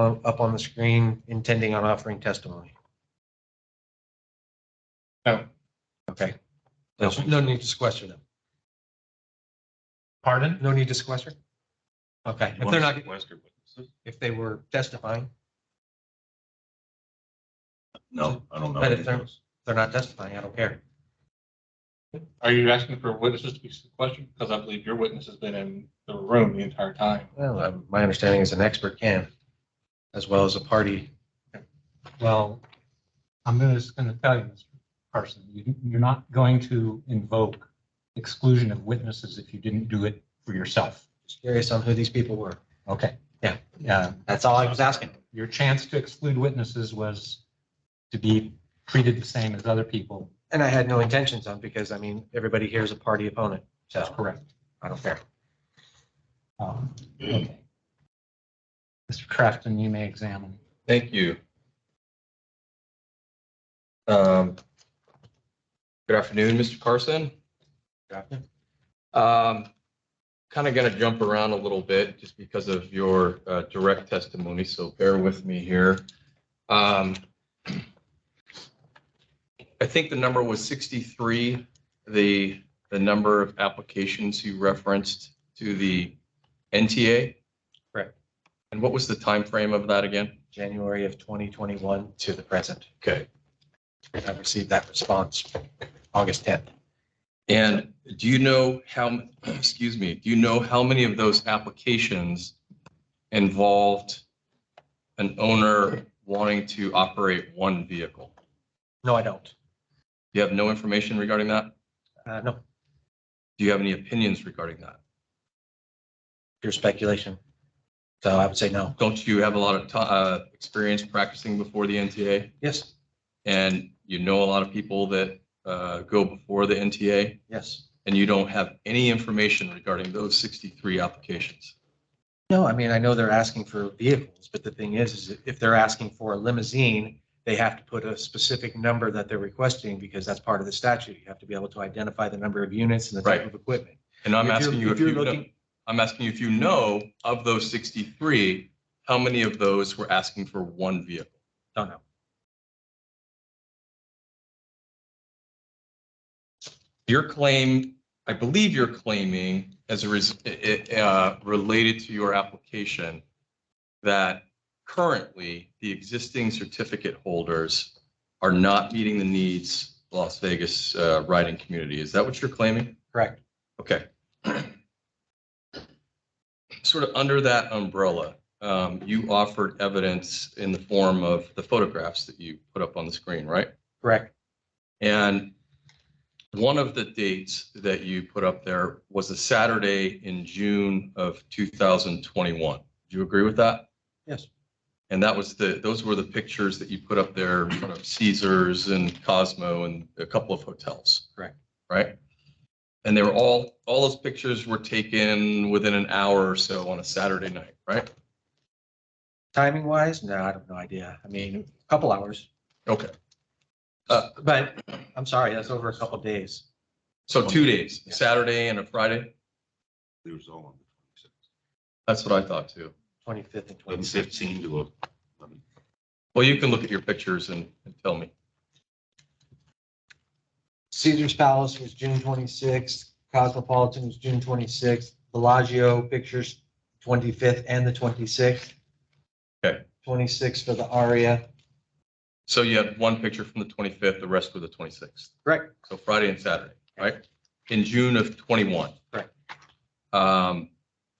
uh, up on the screen intending on offering testimony? No. Oh, Okay. There's No need to sequester them. Pardon? No need to sequester? Okay, if they're not, if they were testifying, No, I don't know. But if they're- they're not testifying, I don't care. Are you asking for witnesses to be questioned? Because I believe your witness has been in the room the entire time. Well, um, my understanding is an expert can, as well as a party. Well, I'm gonna- just going to tell you, Mr. Carson, you- you're not going to invoke exclusion of witnesses if you didn't do it for yourself. Just Curious on who these people were. Okay? Yeah. Yeah, That's all I was asking. your chance to exclude witnesses was to be treated the same as other people. And I had no intentions on, because I mean, everybody here is a party opponent, That's so correct. I don't care. Um, okay. Mr. Crafton, you may examine. Thank you. Um, Good afternoon, Mr. Carson. Um, Kind of going to jump around a little bit just because of your uh, direct testimony, so bear with me here. Um, I think the number was 63, the, the number of applications you referenced to the NTA? Correct. And what was the time frame of that again? January of 2021 to the present. Okay. I received that response August 10th. And do you know how, excuse me, do you know how many of those applications involved an owner wanting to operate one vehicle? Do No, I don't. you have no information regarding that? Uh, No, Do you have any opinions regarding that? pure speculation. So I would say no. Don't you have a lot of ti- uh, experience practicing before the NTA? Yes, And you know a lot of people that uh, go before the NTA? yes. And you don't have any information regarding those 63 applications? No, I mean, I know they're asking for vehicles, but the thing is, is if they're asking for a limousine, they have to put a specific number that they're requesting because that's part of the statute. You have to be able to identify the number of units and the type Right. of equipment. And If I'm you're- asking you if if you're you know. looking- I'm asking you if you know of those 63, how many of those were asking for one vehicle? Don't know. Your claim, I believe you're claiming as a, res- i- i- uh, related to your application that currently the existing certificate holders are not meeting the needs of Las Vegas uh, riding community. Is that what you're claiming? Correct. Okay. Sort of under that umbrella, um, you offered evidence in the form of the photographs that you put up on the screen, right? Correct. And one of the dates that you put up there was a Saturday in June of 2021. Do you agree with that? Yes. And that was the, those were the pictures that you put up there in front of Caesars and Cosmo and a couple of hotels. Correct. Right? And they were all, all those pictures were taken within an hour or so on a Saturday night, right? Timing wise, no, I have no idea. I mean, a couple hours. Okay. But I'm sorry, that's over a couple days. So two days, Saturday and a Friday. It was all on the That's what I thought too. Twenty-fifth and twenty-sixth. twenty-sixth. Fifteen to eleven. Well, you can look at your pictures and, and tell me. Caesar's Palace was June twenty-sixth, Cosmopolitan was June twenty-sixth, Bellagio Pictures twenty-fifth and the twenty-sixth. Okay. Twenty-sixth for the Aria. So you had one picture from the 25th, the rest were the 26th. Correct. So Friday and Saturday, right? In June of 21. Correct. Um,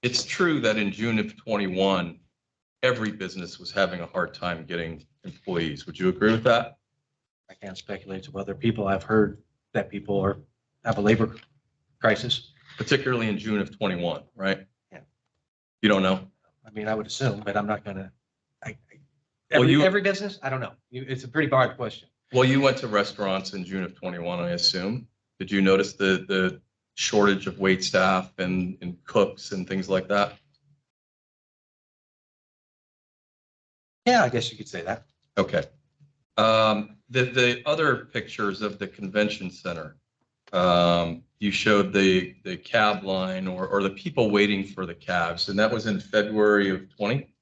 It's true that in June of 21, every business was having a hard time getting employees. Would you agree with that? I can't speculate to other people. I've heard that people are, have a labor crisis. Particularly in June of 21, right? Yeah. You don't know? I mean, I would assume, but I'm not gonna. I- I- Well, Every, you- every business, I don't know. You- It's a pretty broad question. Well, you went to restaurants in June of 21, I assume. Did you notice the, the shortage of wait staff and, and cooks and things like that? Yeah, I guess you could say that. Okay. Um, the, the other pictures of the convention center, um, you showed the, the cab line or, or the people waiting for the cabs, and that was in February of twenty?